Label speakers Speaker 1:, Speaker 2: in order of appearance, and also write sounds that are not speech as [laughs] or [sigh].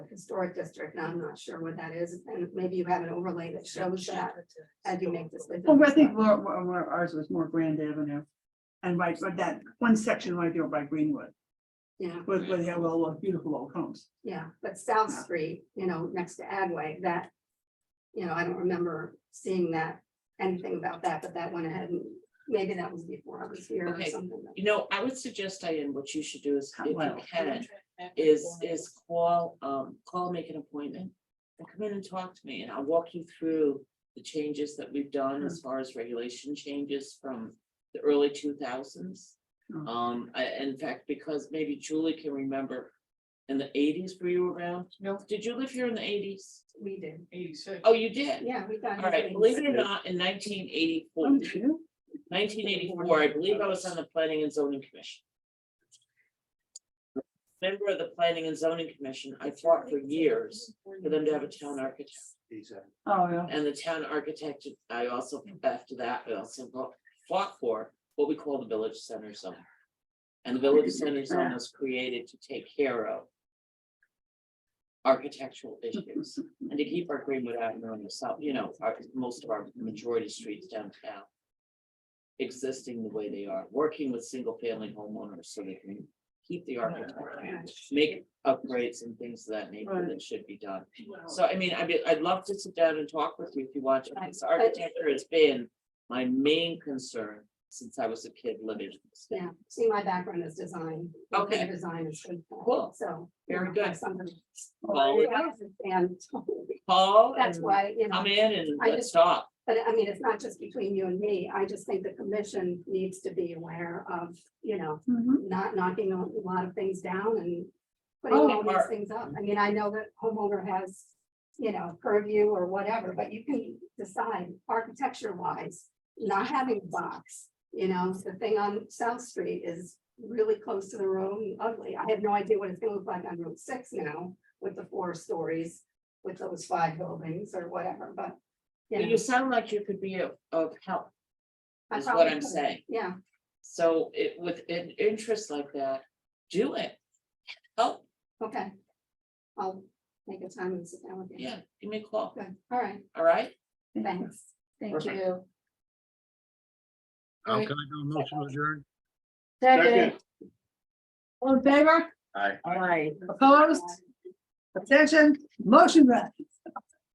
Speaker 1: historic district, and I'm not sure what that is, and maybe you have an overlay that shows that as you make this.
Speaker 2: Well, I think more, more- more- ours was more Grand Avenue. And right, but that one section right there by Greenwood,
Speaker 1: Yeah,
Speaker 2: with, with, yeah, well, well, beautiful old homes.
Speaker 1: yeah, but South Street, you know, next to Agway, that, you know, I don't remember seeing that, anything about that, but that went ahead and maybe that was before I was here or
Speaker 3: Okay.
Speaker 1: something.
Speaker 3: You know, I would suggest, Diane, what you should do is, if you
Speaker 2: Well.
Speaker 3: can, is, is call, um, call, make an appointment. And come in and talk to me, and I'll walk you through the changes that we've done as far as regulation changes from the early two thousands.
Speaker 2: Hmm.
Speaker 3: Um, I, in fact, because maybe Julie can remember, in the eighties, were you around?
Speaker 4: No.
Speaker 3: Did you live here in the eighties?
Speaker 1: We did,
Speaker 4: Eighty-six.
Speaker 3: Oh, you did?
Speaker 1: yeah, we got.
Speaker 3: All right,
Speaker 1: everything.
Speaker 3: believe it or not, in nineteen eighty-four, nineteen eighty-four, I believe I was on the planning and zoning commission. Member of the planning and zoning commission, I fought for years for them to have a town architect.
Speaker 2: Oh, yeah.
Speaker 3: And the town architect, I also, after that, I also fought- fought for what we call the village center zone. And the village center zone was created to take care of architectural issues and to keep our Greenwood Avenue on the south, you know, our, most of our majority streets downtown existing the way they are, working with single-family homeowners so they can keep
Speaker 1: Oh,
Speaker 3: the architecture, make upgrades and things of that nature
Speaker 2: Right.
Speaker 3: that should be done.
Speaker 1: Oh.
Speaker 3: So I mean, I'd be, I'd love to sit down and talk with you if you want to, because architecture has been my main concern since I was a kid living. in this state.
Speaker 1: Yeah, see, my background is design.
Speaker 3: Okay.
Speaker 1: interior Design is good.
Speaker 3: Cool.
Speaker 1: So. you
Speaker 3: Very
Speaker 1: know,
Speaker 3: good.
Speaker 1: have something-
Speaker 3: Well,
Speaker 1: And [laughs] Oh,
Speaker 3: Paul,
Speaker 1: that's why, you know,
Speaker 3: come in and
Speaker 1: I
Speaker 3: let's
Speaker 1: just-
Speaker 3: talk.
Speaker 1: but I mean, it's not just between you and me. I just think the commission needs to be aware of, you know,
Speaker 2: Mhm.
Speaker 1: not knocking a lot of things down and putting all
Speaker 3: Oh, are-
Speaker 1: these things up. I mean, I know that homeowner has, you know, purview or whatever, but you can decide architecture wise, not having box. You know, the thing on South Street is really close to the road and ugly. I have no idea what it's gonna look like on Route Six now with the four stories, with those five buildings or whatever, but. you know.
Speaker 3: You sound like you could be of, of help,
Speaker 1: I
Speaker 3: is what
Speaker 1: probably
Speaker 3: I'm
Speaker 1: could.
Speaker 3: saying.
Speaker 1: Yeah,
Speaker 3: So it with an interest like that, do it. Help,
Speaker 1: okay. I'll make a time and sit down with you.
Speaker 3: yeah, give me a call,
Speaker 1: Good, all right,
Speaker 3: all right?
Speaker 1: thanks. Thank
Speaker 3: Perfect.
Speaker 1: you.
Speaker 5: Um, can I do a motion to adjourn?
Speaker 6: Second.
Speaker 2: All in favor?
Speaker 5: Aye.
Speaker 2: Aye. Opposed? Abstention? Motion read.